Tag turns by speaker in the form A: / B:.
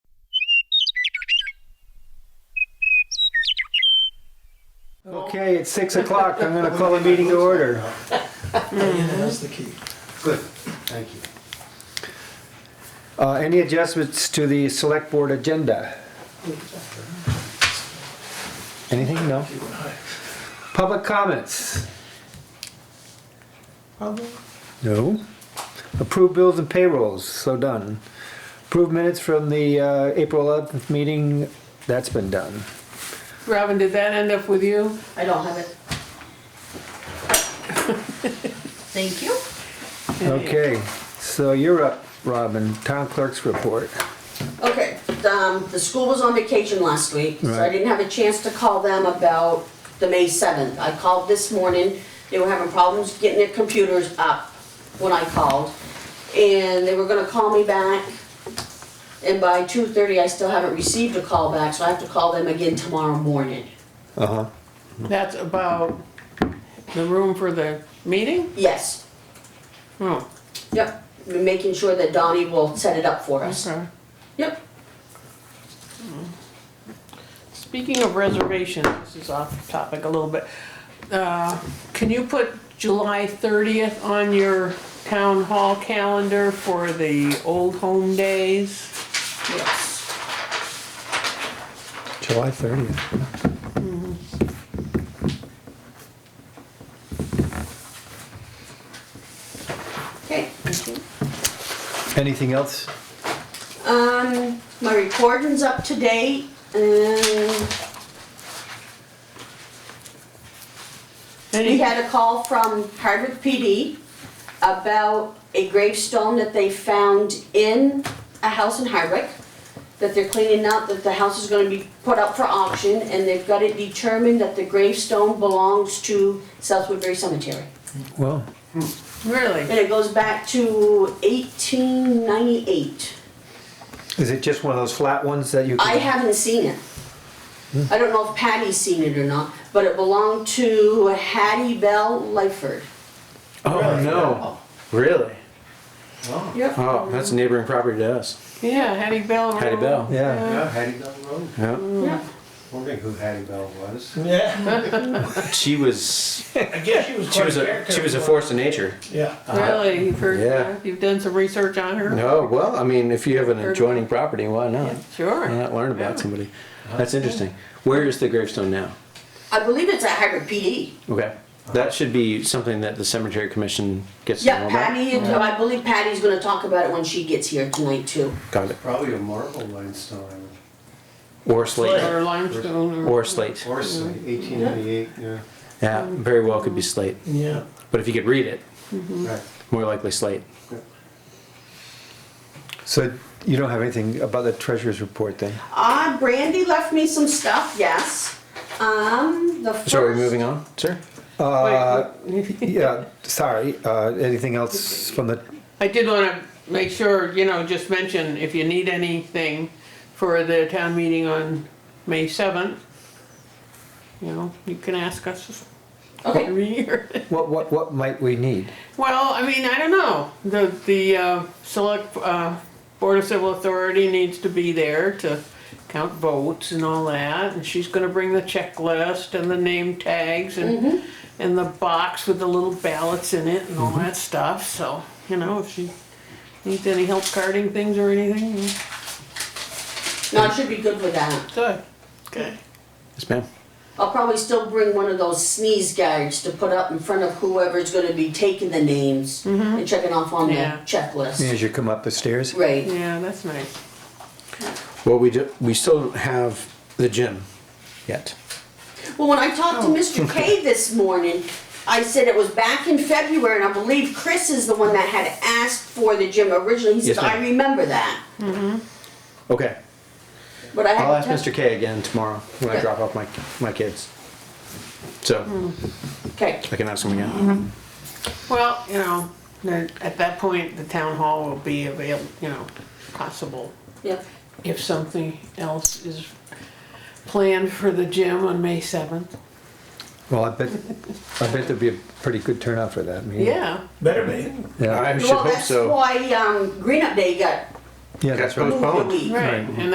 A: Okay, it's six o'clock. I'm gonna call a meeting to order.
B: Yeah, that's the key.
A: Good, thank you. Uh, any adjustments to the select board agenda? Anything? No?
B: You and I.
A: Public comments?
B: Probably.
A: No. Approved bills and payrolls, so done. Approved minutes from the, uh, April eleventh meeting, that's been done.
C: Robin, did that end up with you?
D: I don't have it. Thank you.
A: Okay, so you're up, Robin, town clerk's report.
D: Okay, um, the school was on vacation last week, so I
A: Right.
D: didn't have a chance to call them about the May seventh. I called this morning, they were having problems getting their computers up when I called. And they were gonna call me back, and by two thirty, I still haven't received a call back, so I have to call them again tomorrow morning.
A: Uh-huh.
C: That's about the room for the meeting?
D: Yes,
C: Oh,
D: yep, making sure that Donnie will set it up for us.
C: okay.
D: Yep,
C: Speaking of reservations, this is off topic a little bit. Uh, Can you put July 30th on your town hall calendar for the old home days?
D: yes.
A: July thirtieth.
D: Okay.
A: Anything else?
D: Um, my recording's up to date and we
C: Any,
D: had a call from Hardwick PD about a gravestone that they found in a house in Hardwick that they're cleaning up, that the house is gonna be put up for auction and they've got it determined that the gravestone belongs to South Woodbury Cemetery.
A: Well,
C: really?
D: And it goes back to eighteen ninety-eight.
A: is it just one of those flat ones that you?
D: I
A: can-
D: haven't seen it. I don't know if Patty's seen it or not, but it belonged to Hattie Bell Lyford.
E: Oh, no. Really?
B: Wow.
D: Yep.
E: Oh, that's a neighboring property to us.
C: Yeah, Hattie Bell.
E: Hattie
C: Road.
E: Bell.
A: Yeah.
F: Yeah, Hattie Bell Road.
E: Yeah.
D: Yep.
F: Wondering who Hattie Bell was.
B: Yeah.
E: She was
B: I guess she was
E: she
B: quite
E: was
B: a
E: a
B: character.
E: she was a force of nature.
B: Yeah.
C: Really? You've heard,
E: Yeah.
C: you've done some research on her?
E: No, well, I mean, if you have an adjoining property, why not? Why
C: Sure.
E: not learn about somebody? That's interesting. Where is the gravestone now?
D: I believe it's at Hybrid PD.
E: Okay. That should be something that the cemetery commission gets to know
D: Yeah,
E: about.
D: Patty, and- I believe Patty's gonna talk about it when she gets here tonight too.
E: Got it.
F: Probably a marble limestone,
E: Or slate.
C: Or limestone or.
E: Or slate.
F: or something,
B: Mm-hmm.
F: eighteen ninety-eight, yeah.
E: Yeah, very well could be slate.
B: Yeah.
E: But if you could read it,
F: Right.
E: more likely slate.
A: So you don't have anything about the treasurer's report then?
D: Uh, Brandy left me some stuff, yes. Um, the
E: So are we
D: first-
E: moving on, sir?
A: Uh, yeah, sorry, uh, anything else from the,
C: I did wanna make sure, you know, just mention if you need anything for the town meeting on May seventh, you know, you can ask us
D: Okay,
C: every year.
A: what, what, what might we need?
C: Well, I mean, I don't know, the, the, uh, select, uh, Board of Civil Authority needs to be there to count votes and all that, and she's gonna bring the checklist and the name tags and, and the box with the little ballots in it and all that stuff, so, you know, if she needs any help carding things or anything, you know,
D: no, I should be good with that.
C: good, okay.
E: Yes, ma'am.
D: I'll probably still bring one of those sneeze guards to put up in front of whoever's gonna be taking the names
E: Mm-hmm.
D: and checking off on the
C: Yeah.
D: checklist.
A: As you come up the stairs?
D: Right,
C: Yeah, that's nice.
E: Well, we do, we still don't have the gym yet.
D: well, when I talked to
E: Oh.
D: Mr. K this morning, I said it was back in February, and I believe Chris is the one that had asked for the gym originally, he
E: Yes,
D: said, I
E: ma'am.
D: remember that,
E: Okay,
D: but I
E: I'll
D: had
E: ask Mr. K again tomorrow when I
D: Yeah.
E: drop off my, my kids. So
D: Okay,
E: I can ask him
D: Mm-hmm.
E: again.
C: Well, you know, then at that point, the town hall will be available, you know, possible.
D: yeah,
C: If something else is planned for the gym on May seventh.
A: Well, I bet, I bet there'd be a pretty good turnout for that meeting.
C: Yeah,
B: Better be.
A: Yeah,
E: I should
D: well,
E: hope
D: that's
E: so.
D: why, um, Green Up Day got
A: yeah, that's right.
D: moved a
E: Postponed.
D: week.
C: right. And